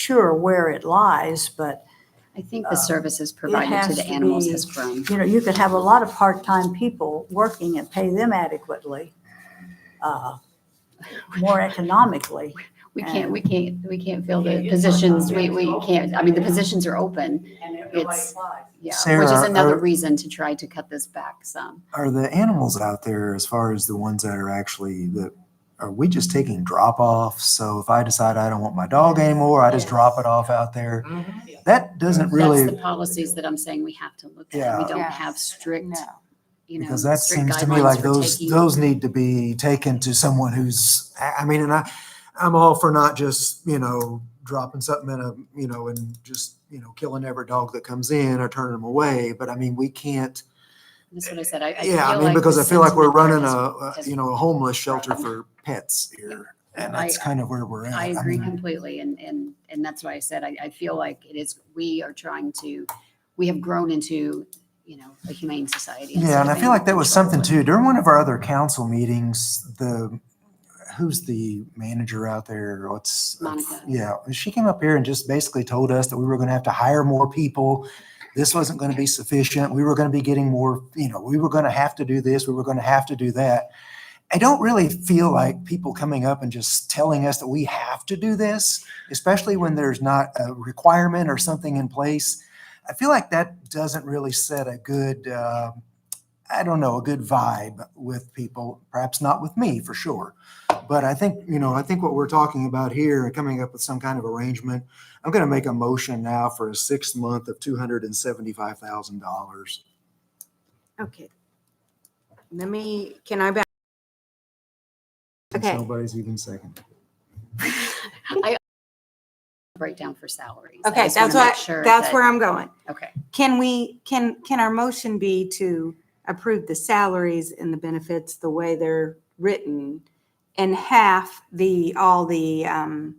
sure where it lies, but, I think Uh, the services provided to has the to animals be- has grown. you know, you could have a lot of part-time people working and pay them adequately, uh, more economically. We and- can't, we can't, we can't fill Yeah, the it's not positions, we, done. we It's can't, I mean, the open. positions are open, And if nobody nobody It's- applies. yeah, which is Sarah, another are- reason to try to cut this back some. Are the animals out there as far as the ones that are actually that are we just taking drop offs? So if I decide I don't want my dog anymore, I just drop it off out there. That doesn't Mm-hmm. That's the really policies that I'm saying we have to look at. We Yeah. don't Yes. have strict, you know, because that strict seems to me guidelines like for those taking- those need to be taken to someone who's I I mean and I I'm all for not just, you know, dropping something in a, you know, and just, you know, killing every dog that comes in or turning them away, but I mean, we can't That's what I said, I, I feel Yeah, I mean, like because the I feel like we're sentiment there running a, is- a, doesn't- you know, a homeless shelter for pets here. And I- that's kind of where we're at. I agree mean, completely, and, and, and that's why I said, I, I feel like it is, we are trying to, we have grown into, you know, a humane society. Yeah, instead and I of feel like that was animal something control. too. During one of our other council meetings, the, who's the manager out there? What's? Monica. Yeah, she came up here and just basically told us that we were going to have to hire more people. This wasn't going to be sufficient. We were going to be getting more, you know, we were going to have to do this, we were going to have to do that. I don't really feel like people coming up and just telling us that we have to do this, especially when there's not a requirement or something in place. I feel like that doesn't really set a good, uh, I don't know, a good vibe with people, perhaps not with me for sure. But I think, you know, I think what we're talking about here and coming up with some kind of arrangement, I'm going to make a motion now for a sixth month of $275,000. Okay. Let me, can I back? Since Okay. Nobody's even second. I breakdown for salaries. I Okay, just wanna that's what, make sure that's that- where I'm going. Okay, Can we, can, can our motion be to approve the salaries and the benefits the way they're written? And half the, all the, um,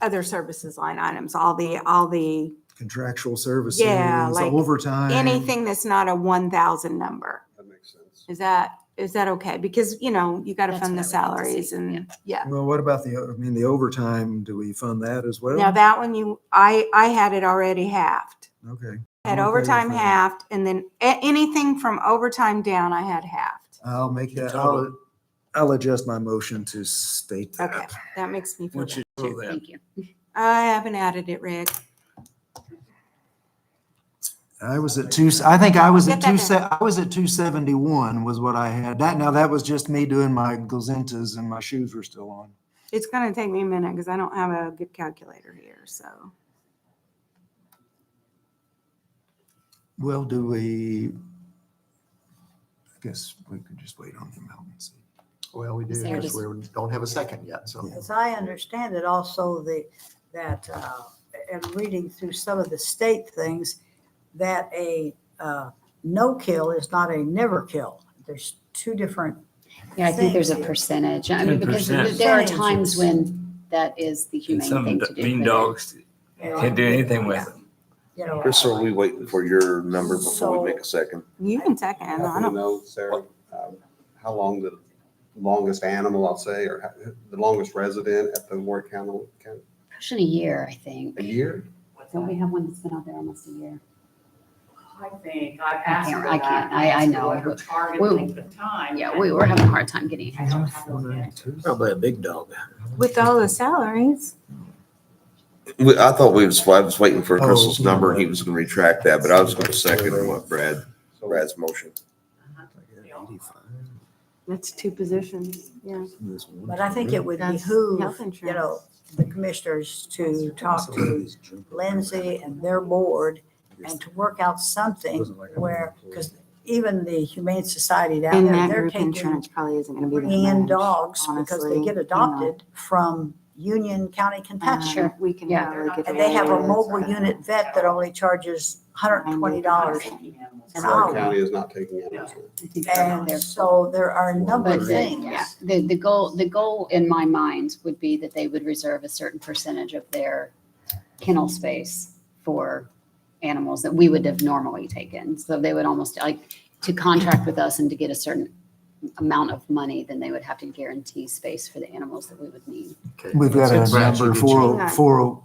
other services line items, all the, all the, Contractual services, like overtime. anything that's not a one thousand number. That makes sense. Is that, is that okay? Because, you know, you gotta That's fund the what I would like to see, salaries and, yeah. Well, what about the, I mean, the overtime, do we fund that as well? Now that one you, I, I had it already halved. Okay. I'm Had okay with overtime that. halved and then a- anything from overtime down, I had halved. I'll make that, I'll, Total. I'll adjust my motion to state Okay, that. that makes me feel Once better. you do that, thank you. I haven't added it, Rick. I was at two, I think I was at Get that two, se- I was at two seventy-one was what I had. That, now that was just me doing my glazentas and my shoes were still on. It's gonna take me a minute because I don't have a good calculator here, so. Well, do we? I guess we could just wait on the amount and see. Well, we do, Sarah because just- we don't have a second yet, so. As I understand it, also the, that, uh, and reading through some of the state things, that a uh, no-kill is not a never-kill. There's two different, Yeah, I think there's a Thank you. percentage. I mean, because 10%. there are times when that that is the And humane some thing to d- do. mean but- dogs can't do anything with them. you know. So are we waiting for your number before we make a second? You can second. I I don't- don't know, Sarah, um, how long the longest animal, I'll say, or how- the longest resident at the Warwick County, County- Pushing a year, I a think. year? Don't we have one that's been out there almost a year? I think, I've asked can't- her I that. can't- I- I know. Her target We- length of time. Yeah, we were having a hard time getting I don't have those yet. Probably a big dog. With all the salaries. We, I thought we was, I was waiting for Oh, Crystal's no. number and he was gonna retract that, but I was gonna second what Brad, So Brad's motion. That's two positions, yeah. But I think it would That's behoove, health you know, insurance. the commissioners to talk to Lindsay and their board and to work out something where, because even the Humane Society down And there, that they're group taking, insurance probably isn't gonna be that bringing in much. dogs because honestly, they you get know. adopted from Union County, Kentucky. Sure. Um, We can Yeah. probably get. And they have a away with mobile that. unit vet that only charges $120. an Warwick hour. County is not taking animals. I think they're out And there. so there are a number But of the, yeah, things. the, the goal, the goal in my mind would be that they would reserve a certain percentage of their kennel space for animals that we would have normally taken. So they would almost like to contract with us and to get a certain amount of money, then they would have to guarantee space for the animals that we would need. Okay. We've got It's in a Bradford number and four, oh, four,